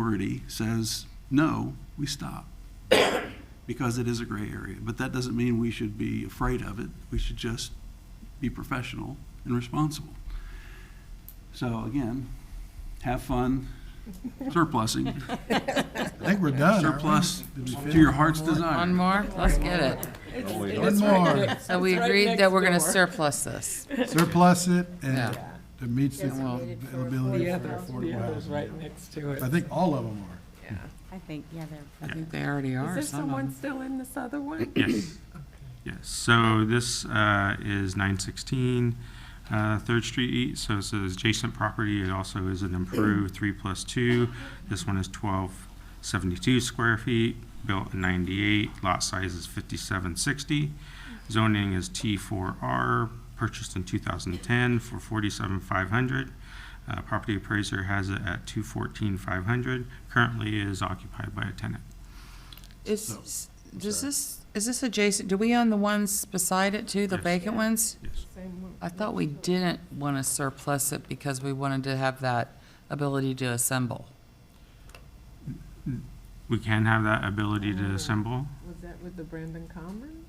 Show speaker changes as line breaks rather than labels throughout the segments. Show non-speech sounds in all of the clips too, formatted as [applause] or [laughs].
majority says, no, we stop, because it is a gray area. But that doesn't mean we should be afraid of it. We should just be professional and responsible. So again, have fun
[laughs]
surplusing,
I think we're done. aren't we?
surplus
Did we
to your
finish?
heart's
One
desire.
more, let's get it.
One more,
So we agreed that we're gonna surplus this.
[laughs] surplus it and
Yeah.
it meets the
well-
availability
The
for
other,
affordable
the other's right
housing.
next to it.
I think all of them are.
Yeah.
I think, yeah,
I
they're.
think they already
Is
are,
there
some of
someone
them.
still in this other one?
Yes, yes. So this uh, is 916 uh, Third Street East, so it's an adjacent property. It also is an improved three plus two. This one is 1272 square feet, built in 98, lot size is 5760. Zoning is T4R, purchased in 2010 for 47,500. Uh, Property appraiser has it at 214,500, currently is occupied by a tenant.
Is, does this, is this adjacent, do we own the ones beside it too, the
Yes.
vacant ones?
Yes.
Same one.
I thought we didn't wanna surplus it because we wanted to have that ability to assemble.
We can have that ability to assemble.
Was that with the Brandon Commons?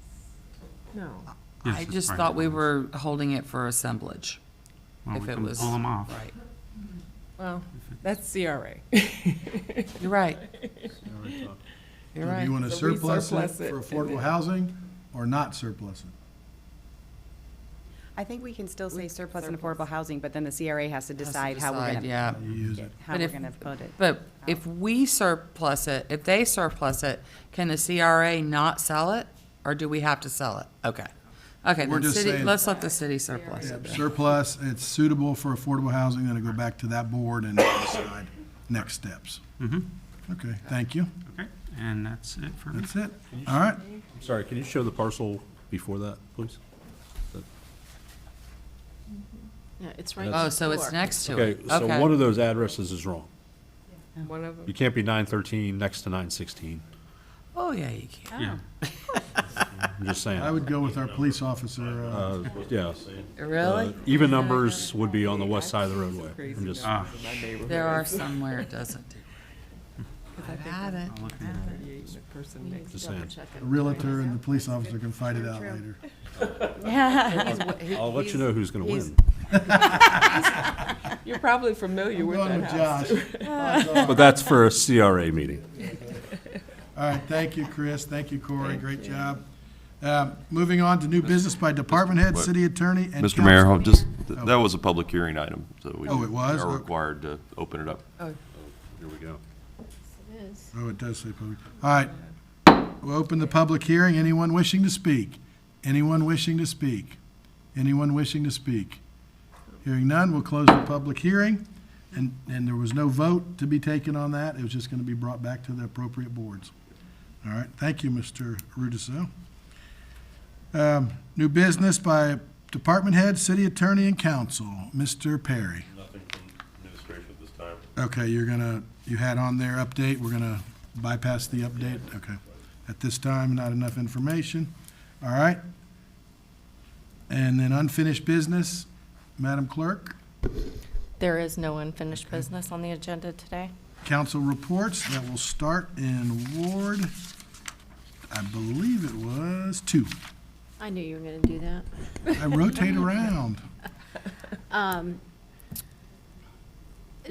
No.
Yes,
I
it's
just
private
thought we
ones.
were holding it for assemblage,
Well,
if
we
it
can
was-
Pull them off.
right?
Well, that's CRA.
You're right, you're
Do
right.
you want to
So we
surplus it
surplus it
for
and
affordable
then-
housing or not surplus it?
I think we can still say surplus and
surplus.
affordable housing, but then the CRA has to
Has to
decide how we're
decide,
gonna,
Yeah.
You use it.
how
But
we're
if-
gonna put it.
But if we surplus it, if they surplus it, can the CRA not sell it? Or do we have to sell it? Okay. Okay,
We're
then
just
city,
saying-
let's let the city surplus it.
Yep, Surplus, it's suitable for affordable housing, then it'll go back to that board and decide next steps.
Mm-hmm,
Okay, thank you.
okay, and that's it for me.
That's it. All right.
I'm sorry, can you show the parcel before that, please?
Yeah, it's right.
Oh, so it's next to
Okay,
it?
so one of those addresses is wrong.
[laughs] One of them.
You can't be nine thirteen next to nine sixteen.
Oh, yeah, you can.
Yeah,
I'm just
I
saying.
would go with our police officer. uh,
Uh, Yeah. Uh,
Really?
Even numbers would be on the west side of the roadway. I'm just,
ah,
My neighborhood.
There are some where it doesn't do. I've had it.
I'll look into it.
Thirty-eight and the person next.
just saying.
The Realtor and the police officer can fight it out later.
I'll let you know who's
[laughs]
gonna win.
You're probably familiar with
Going
that
with
house.
Josh.
But that's for a CRA meeting.
All right, thank you, Chris. Thank you, Corey. Great job. Um, Moving on to new business by department head, city attorney, and
Mr. Mayor,
council.
I'll just, th- that was a public hearing item, so we
Oh, it was?
are required to open it up.
Here we go.
Oh, it does say public. All right. We'll open the public hearing. Anyone wishing to speak? Anyone wishing to speak? Anyone wishing to speak? Hearing none, we'll close the public hearing. And, and there was no vote to be taken on that. It was just going to be brought back to the appropriate boards. All right, thank you, Mr. Rudisil. Um, New business by department head, city attorney, and council. Mr. Perry.
Nothing from administration at this time.
Okay, you're gonna, you had on there update, we're gonna bypass the update, okay. At this time, not enough information, all right? And then unfinished business, Madam Clerk,
There is no unfinished business on the agenda today.
council reports that will start in Ward, I believe it was two.
I knew you were going to do that.
I rotate around.
Um,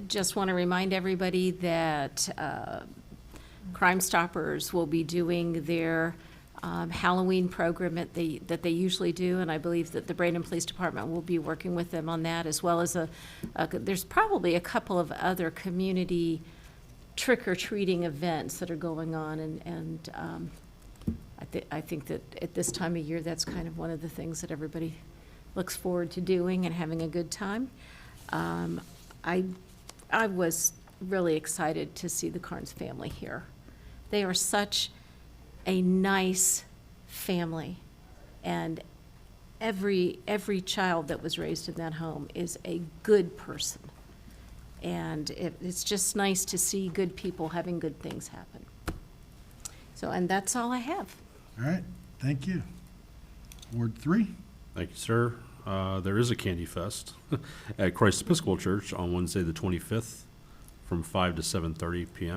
Just want to remind everybody that uh, Crime Stoppers will be doing their um, Halloween program that they, that they usually do, and I believe that the Braden Police Department will be working with them on that, as well as a, a- there's probably a couple of other community trick-or-treating events that are going on, and, and um, I thi, I think that at this time of year, that's kind of one of the things that everybody looks forward to doing and having a good time. Um, I, I was really excited to see the Carnes family here. They are such a nice family, and every, every child that was raised in that home is a good person. And it, it's just nice to see good people having good things happen. So, and that's all I have.
All right, thank you. Ward three,
Thank you, sir. Uh, There is a Candy Fest [laughs] at Christ Episcopal Church on Wednesday, the 25th, from 5 to 7:30 PM.